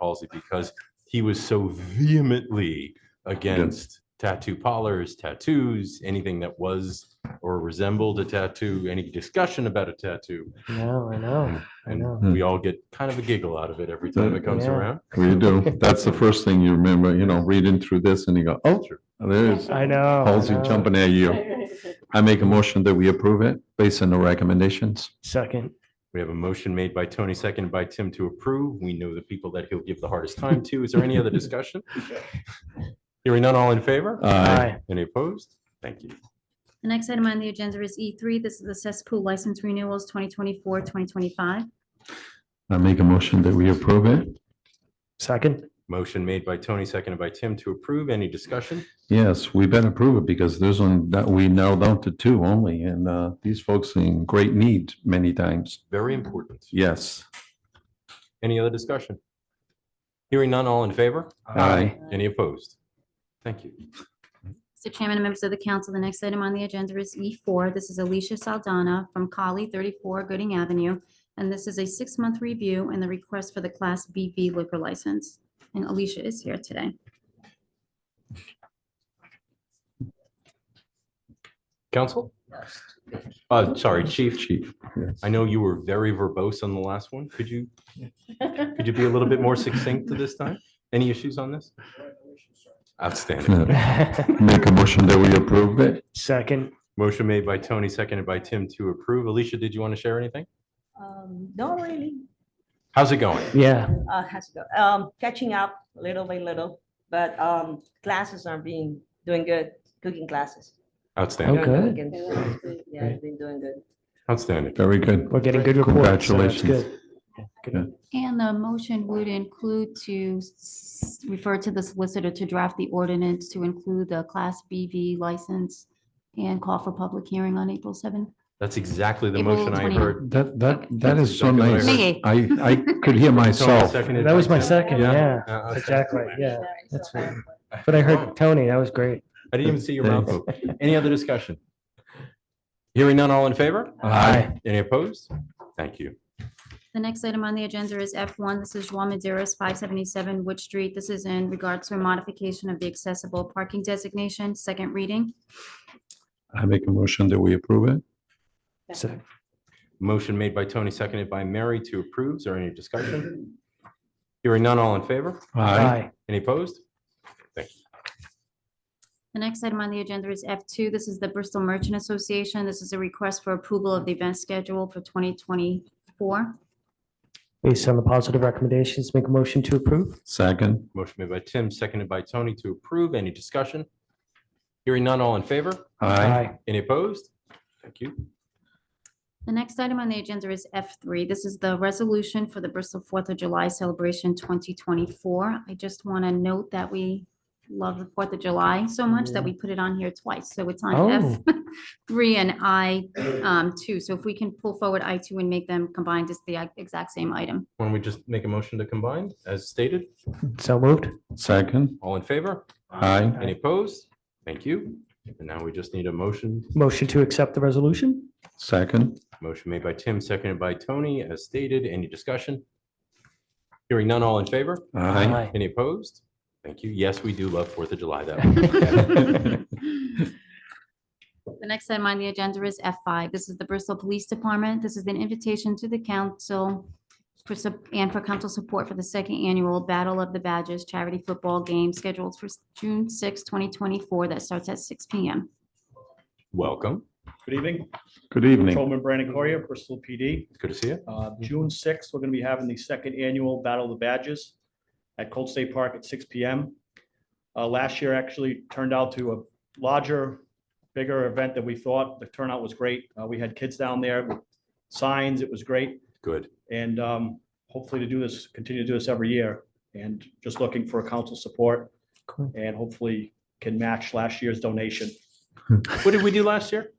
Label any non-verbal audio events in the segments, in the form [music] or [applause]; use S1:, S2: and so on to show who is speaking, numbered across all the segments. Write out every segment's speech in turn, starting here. S1: policy because he was so vehemently against tattoo parlors, tattoos, anything that was or resembled a tattoo, any discussion about a tattoo.
S2: No, I know, I know.
S1: And we all get kind of a giggle out of it every time it comes
S2: Yeah.
S1: around.
S3: We do. That's the first thing you remember, you know, reading through this and you go, oh, there's
S2: I know.
S3: policy
S2: I know.
S3: jumping at you. I make a motion that we approve it based on the recommendations.
S2: Second,
S1: We have a motion made by Tony, seconded by Tim to approve. We know the people that he'll give the hardest time to. Is there any other discussion? Hearing none, all in favor?
S3: Aye.
S2: aye,
S1: Any opposed? Thank you.
S4: The next item on the agenda is E3. This is the cesspool license renewals 2024, 2025.
S3: I make a motion that we approve it.
S2: second, [laughs]
S1: Motion made by Tony, seconded by Tim to approve. Any discussion?
S3: Yes, we better approve it because there's one that we narrowed down to two only and uh, these folks in great need many times.
S1: Very important.
S3: Yes.
S1: Any other discussion? Hearing none, all in favor?
S3: Aye.
S1: Any opposed? Thank you.
S4: Mr. Chairman and members of the council, the next item on the agenda is E4. This is Alicia Saldana from Collie 34 Gooding Avenue, and this is a six-month review and the request for the Class BV liquor license. And Alicia is here today.
S1: Council? Uh, sorry, Chief.
S3: Chief. yes.
S1: I know you were very verbose on the last one. Could you, could you be a little bit more succinct to this time? Any issues on this? Outstanding.
S3: Make a motion that we approve it.
S2: second,
S1: Motion made by Tony, seconded by Tim to approve. Alicia, did you want to share anything?
S5: Um, not really.
S1: How's it going?
S2: yeah.
S5: Uh, has to go. Um, catching up little by little, but um, classes are being doing good. Cooking classes.
S1: Outstanding,
S2: Oh, good.
S5: Cooking. Yeah,
S2: Great.
S5: I've been doing good.
S1: outstanding.
S3: Very good.
S2: We're getting good reports. so that's
S3: Congratulations.
S2: good. Good.
S4: And the motion would include to s- refer to the solicitor to draft the ordinance to include the Class BV license and call for public hearing on April 7th.
S1: That's exactly the
S4: April
S1: motion I
S4: 20.
S1: heard.
S3: That, that, that is so
S1: Exactly
S3: nice.
S1: what
S4: I
S3: I, I could [laughs] hear
S1: Tony,
S3: myself.
S1: seconded
S2: That
S1: by
S2: was my
S1: Tim.
S2: second, yeah,
S1: Uh, okay.
S2: exactly, yeah.
S5: so
S2: that's
S5: I-
S2: But I heard Tony, that was great.
S1: I didn't even see your mouth open. Any other discussion? Hearing none, all in favor?
S2: Aye.
S1: Any opposed? Thank you.
S4: The next item on the agenda is F1. This is Juan Maderas, 577 Wood Street. This is in regards to a modification of the accessible parking designation, second reading.
S3: I make a motion that we approve it.
S2: So,
S1: Motion made by Tony, seconded by Mary to approve. Is there any discussion? Hearing none, all in favor?
S2: aye,
S1: Any opposed?
S4: The next item on the agenda is F2. This is the Bristol Merchant Association. This is a request for approval of the event schedule for 2024.
S2: based on the positive recommendations, make a motion to approve.
S3: Second.
S1: Motion made by Tim, seconded by Tony to approve. Any discussion? Hearing none, all in favor? Any opposed? Thank you.
S4: The next item on the agenda is F3. This is the resolution for the Bristol Fourth of July Celebration 2024. I just want to note that we love the Fourth of July so much that we put it on here twice. So it's on F3 and I2. So if we can pull forward I2 and make them combined, it's the exact same item.
S1: Why don't we just make a motion to combine as stated?
S2: So moved.
S3: Second.
S1: All in favor?
S3: Aye.
S1: Any opposed? Thank you. And now we just need a motion
S2: Motion to accept the resolution?
S3: Second.
S1: Motion made by Tim, seconded by Tony, as stated. Any discussion? Hearing none, all in favor?
S3: Aye.
S1: Any opposed? Thank you. Yes, we do love Fourth of July, though.
S3: [laughs]
S4: The next item on the agenda is F5. This is the Bristol Police Department. This is an invitation to the council for, sup- and for council support for the second annual Battle of the Badges charity football game scheduled for s- June 6, 2024, that starts at 6 PM.
S1: Welcome.
S6: Good evening,
S3: Good evening.
S6: Patrolman Brandon Correa, Bristol PD.
S1: It's Good to see you.
S6: Uh, June sixth, we're gonna be having the second annual Battle of the Badges at Cold State Park at six P M. Uh, last year actually turned out to a larger, bigger event than we thought. The turnout was great. Uh, we had kids down there with signs. It was great.
S1: Good.
S6: And, um, hopefully to do this, continue to do this every year and just looking for council support
S2: Cool.
S6: and hopefully can match last year's donation.
S1: What did we do last year?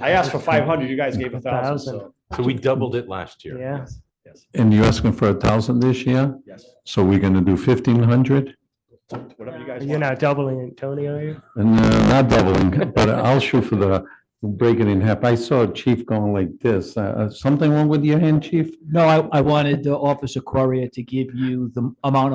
S6: I asked for five hundred, you guys gave a thousand, so,
S1: So we doubled it last year.
S2: Yeah,
S6: yes,
S3: And you're asking for a thousand this year?
S6: yes,
S3: So we're gonna do fifteen hundred?
S6: whatever you guys want.
S2: you're not doubling it, Tony, are you?
S3: [laughs] And uh, not doubling, but I'll shoot for the break it in half. I saw Chief going like this. Uh, uh, something wrong with your hand, Chief?
S2: No, I, I wanted uh, Officer Correa to give you the amount of